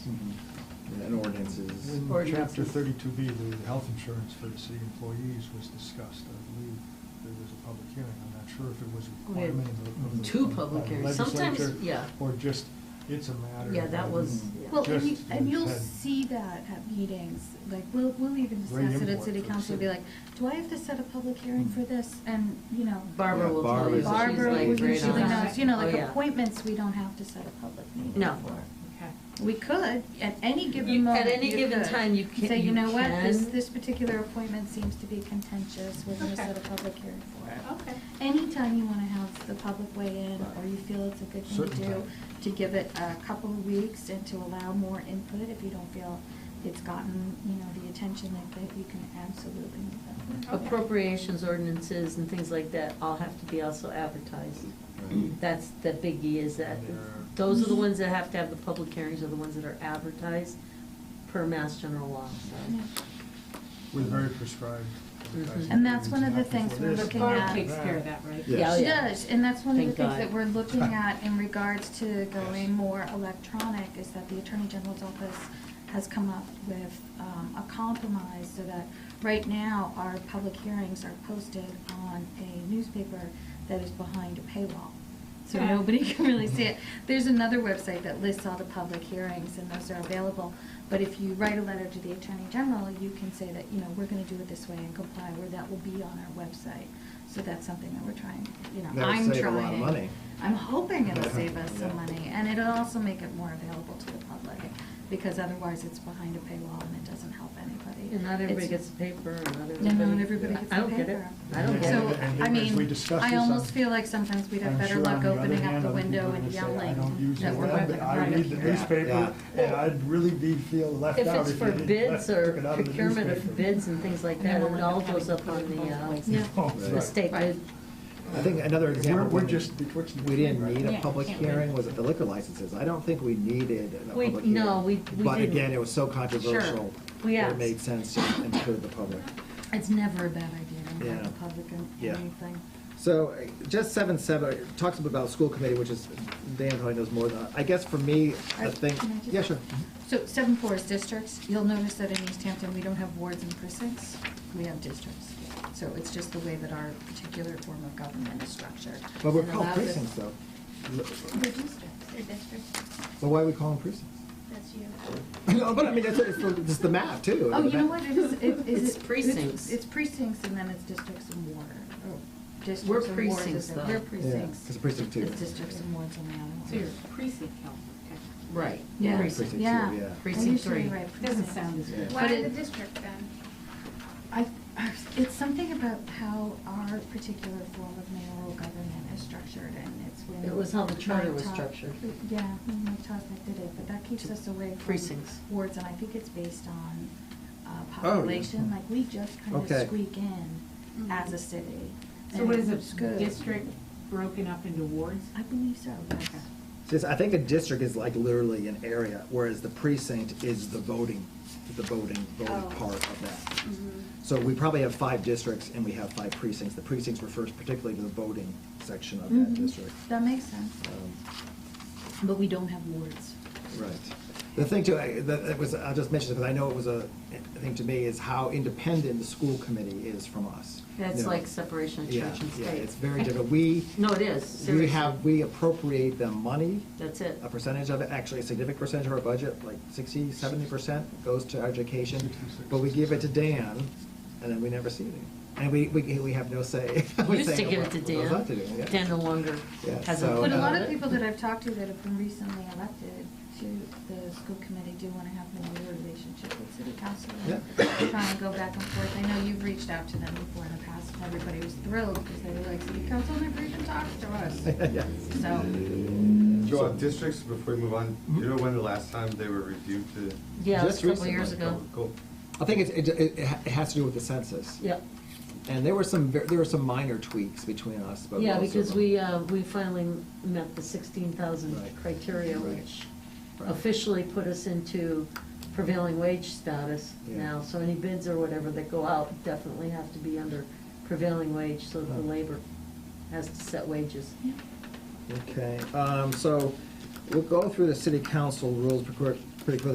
In ordinances. chapter thirty-two B, the health insurance for the city employees was discussed, I believe there was a public hearing, I'm not sure if it was a We had requirement of the- of the. two of the public hearings. legislature Sometimes- yeah. Or just, it's a matter. Yeah, that of- was- yeah. Well, and you, just and you'll had- see that at meetings, like, we'll, we'll even Great discuss it at import city for the council, be city. like, do I have to set a public hearing for this? And, you know. Barbara Yeah, will tell Barbara's- you. that she's Barbara like will great usually on know, that. you know, Oh, like yeah. appointments, we don't have to set a public meeting No. for. Okay. We could, at any given You- moment. at any you given could. time, you can- Say, you you know what, this, can." this particular appointment seems to be contentious, we're gonna Okay. set a public hearing for it. Okay. Anytime you wanna have the public weigh in, or you feel it's a good thing to Certain do, time. to give it a couple of weeks and to allow more input, if you don't feel it's gotten, you know, the attention that, that you can absolutely move it. Appropriations ordinances and things like that all have to be also advertised. Right. That's, the biggie is that, And they're- those are the ones that have to have the public hearings, are the ones that are advertised per Mass General Law, Yeah. so. Was very prescribed. advertising And that's one of the periods, not things we're before this, looking not at. before takes that. care of that, right? Yeah. Yeah, oh She yeah. does, and that's one of the Thank things God. that we're looking at in regards to Yes. going more electronic, is that the Attorney General's office has come up with um, a compromise so that, right now, our public hearings are posted on a newspaper that is behind a paywall. So Yeah. nobody can really see it. There's another website that lists all the public hearings, and those are available. But if you write a letter to the Attorney General, you can say that, you know, we're gonna do it this way and comply, where that will be on our website. So that's something that we're trying, you know, That'll I'm save a lot of trying. money. I'm hoping it'll save us some Yeah. money, and it'll also make it more available to the public, because otherwise it's behind a paywall and it doesn't help anybody. And not everybody It's- gets the paper, and not everybody. And not everybody gets the paper. I don't get it, I don't get So- it. And So, I then as we mean, discuss I this, almost I'm- feel like sometimes we'd have I'm better sure on luck the other opening up hand, the other window people and would say, I yelling don't use that the we're web, having a I read private the hearing. newspaper, Yeah. and I'd really be, feel left If out it's if for you didn't. bids let- or took it out of the procurement of newspaper. bids and things like that, And then it all we'll have goes to up put it on in both ways. the, Yeah. Oh, uh, right. the state. Right. I think another We're- example. we're when just betwixt and We didn't between, need right? a Yeah, public can't wait. hearing, was it the liquor licenses? I don't think we needed a We- public hearing. no, we- we But didn't. again, it was so controversial. We that asked. It made sense to include the public. It's never a bad idea to have Yeah. the public in Yeah. anything. So uh, just seven seven, it talks about school committee, which is, Dan probably knows more than, I guess for me, Uh, the thing, can I just- yeah, sure. So seven four is districts. You'll notice that in East Hampton, we don't have wards and precincts, we have districts. So it's just the way that our particular form of government is structured. But we're It called allows us- precincts though. They're districts. The district, But why are we calling precincts? that's you. No, but I mean, that's, it's the- it's the map too. Oh, The you know map- what, it is, it is. It's it- precincts. It's precincts and then it's districts and ward, or districts We're and wards. precincts, is- though. We're Yeah, precincts. 'cause precinct two. It's districts and wards on the other one. So your precinct council, okay. Right. Yeah. Precinct. two, Yeah. yeah. Precinct I usually three. write Doesn't precincts. sound as Yeah. good. Why But the it- district then? I, I- it's something about how our particular form of mayoral government is structured, and it's when. It was how the charter was Mike Todd- structured. Yeah, when Mike Tosnick did it, but that keeps us away from. Precincts. Wards, and I think it's based on uh, Oh, yeah. population, like, we just kind Okay. of squeak in as a city. Mm-hmm. So and what is it's a good. district broken up into wards? I believe so, yes. Okay. Just, I think a district is like literally an area, whereas the precinct is the voting, the voting, voting Oh. part of that. So we probably have five districts and we have five precincts. The precincts refers particularly to the voting section of that Mm-hmm. Mhm. Mm-hmm. district. That makes sense, Um, But we don't have wards. Right. The thing too, I, that that was, I'll just mention it because I know it was a, a thing to me, is how independent the school committee is from us. That's You know? like separation of Yeah, church and state. Yeah, it's very different. We, No, it is, we seriously. have, we appropriate them money. That's it. a percentage of it, actually a significant percentage of our budget, like 60, 70 percent goes to education, but we give it to Dan, and then we never see it. again. And we, we, we have no say. We Used to give it to What goes Dan. on to Dan, yeah. Dan no longer Yeah, has a. so, But a lot uh, of people that I've talked to that have been recently elected to the school committee do want to have more of a relationship with city council. and Try and go back and forth. I know you've reached out to them before in the past, and everybody was thrilled because they were like, city council never even talks to us. Yeah. So, Joe, districts, before we move on, you know when the last time they were reviewed to? oh, Yeah, it was Just a couple years recently. ago. Cool. I think it's- it, it, it ha- it has to do with the census. Yeah, And there were some, ver- there were some minor tweaks between us, but. yeah, most of because them- we, uh, we finally met the sixteen thousand Right. criteria, Right. which Right. officially put us into prevailing wage status Yeah. now. So any bids or whatever that go out definitely have to be under prevailing wage, so that the Huh. labor has to set wages. yeah. Okay, um, so we'll go through the city council rules pretty quick- pretty quickly.